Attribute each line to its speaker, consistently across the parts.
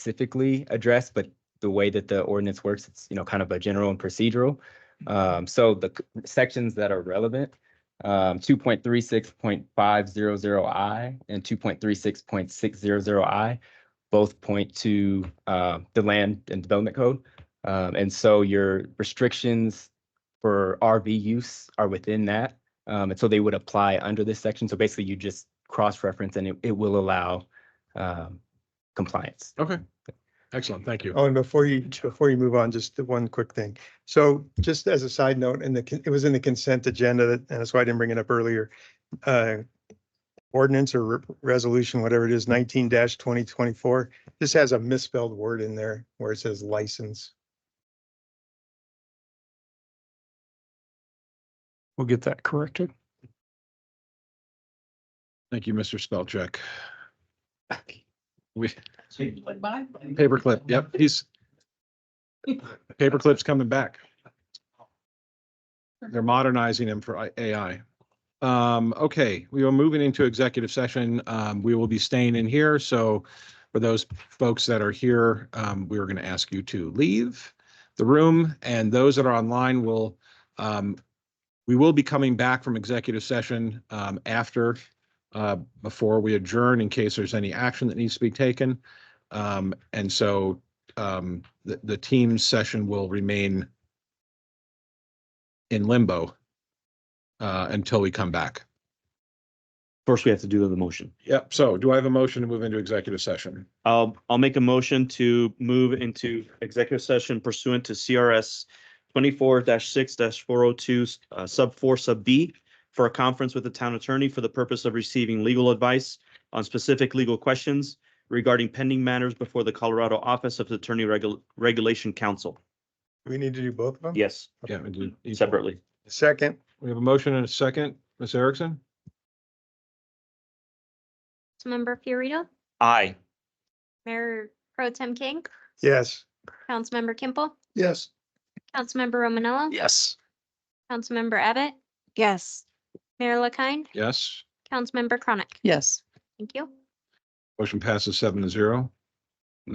Speaker 1: specifically addressed, but the way that the ordinance works, it's, you know, kind of a general and procedural. Um, so the c- sections that are relevant, um, two point three six point five zero zero I and two point three six point six zero zero I both point to, uh, the land and development code. Um, and so your restrictions for RV use are within that. Um, and so they would apply under this section. So basically you just cross-reference and it, it will allow, um, compliance.
Speaker 2: Okay. Excellent. Thank you.
Speaker 3: Oh, and before you, before you move on, just the one quick thing. So just as a side note, and the, con- it was in the consent agenda, that- and that's why I didn't bring it up earlier. Uh, Ordinance or re- resolution, whatever it is, nineteen twenty twenty-four, this has a misspelled word in there where it says license.
Speaker 4: We'll get that corrected.
Speaker 2: Thank you, Mr. Spellcheck. We, paperclip, yep, he's. Paperclip's coming back. They're modernizing him for I- AI. Um, okay, we are moving into executive session. Um, we will be staying in here, so for those folks that are here, um, we are going to ask you to leave the room, and those that are online will, um, we will be coming back from executive session, um, after, uh, before we adjourn in case there's any action that needs to be taken. Um, and so, um, the, the team session will remain in limbo, uh, until we come back.
Speaker 5: First, we have to do the motion.
Speaker 2: Yep. So do I have a motion to move into executive session?
Speaker 5: I'll, I'll make a motion to move into executive session pursuant to CRS twenty-four six four oh two, uh, sub four, sub B for a conference with the town attorney for the purpose of receiving legal advice on specific legal questions regarding pending matters before the Colorado Office of Attorney Regul- Regulation Council.
Speaker 3: Do we need to do both of them?
Speaker 5: Yes,
Speaker 2: Yeah. we do-
Speaker 5: separately.
Speaker 3: Second,
Speaker 2: We have a motion and a second. Ms. Erickson?
Speaker 6: Councilmember Fiorito,
Speaker 5: Aye.
Speaker 6: Mayor Pro Tem King,
Speaker 3: yes.
Speaker 6: Councilmember Kimpel,
Speaker 3: Yes.
Speaker 6: Councilmember Romanella. Yes. Councilmember Abbott,
Speaker 7: Yes.
Speaker 6: Mayor LaKind,
Speaker 2: Yes.
Speaker 6: Councilmember Chronic.
Speaker 7: Yes.
Speaker 6: Thank you.
Speaker 2: Motion passes seven to zero.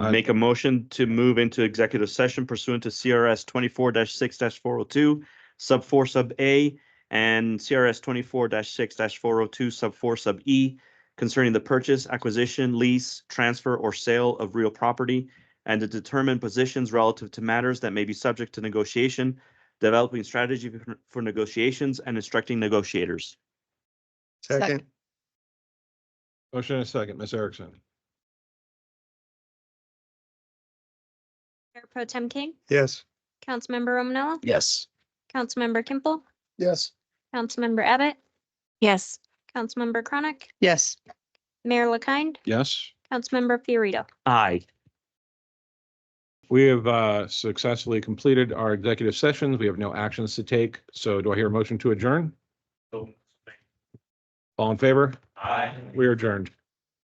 Speaker 2: Aye.
Speaker 5: Make a motion to move into executive session pursuant to CRS twenty-four six four oh two, sub four, sub A, and CRS twenty-four six four oh two, sub four, sub E, concerning the purchase, acquisition, lease, transfer, or sale of real property, and to determine positions relative to matters that may be subject to negotiation, developing strategy for- for negotiations, and instructing negotiators.
Speaker 3: Second,
Speaker 2: Motion and a second. Ms. Erickson?
Speaker 6: Mayor Pro Tem King,
Speaker 3: yes.
Speaker 6: Councilmember Romanella,
Speaker 2: Yes.
Speaker 6: Councilmember Kimpel,
Speaker 3: Yes.
Speaker 6: Councilmember Abbott,
Speaker 7: Yes.
Speaker 6: Councilmember Chronic,
Speaker 7: Yes.
Speaker 6: Mayor LaKind,
Speaker 2: Yes.
Speaker 6: Councilmember Fiorito.
Speaker 5: Aye.
Speaker 2: We have uh, successfully completed our executive sessions. We have no actions to take. So do I hear a motion to adjourn? All in favor?
Speaker 5: Aye.
Speaker 2: We are adjourned.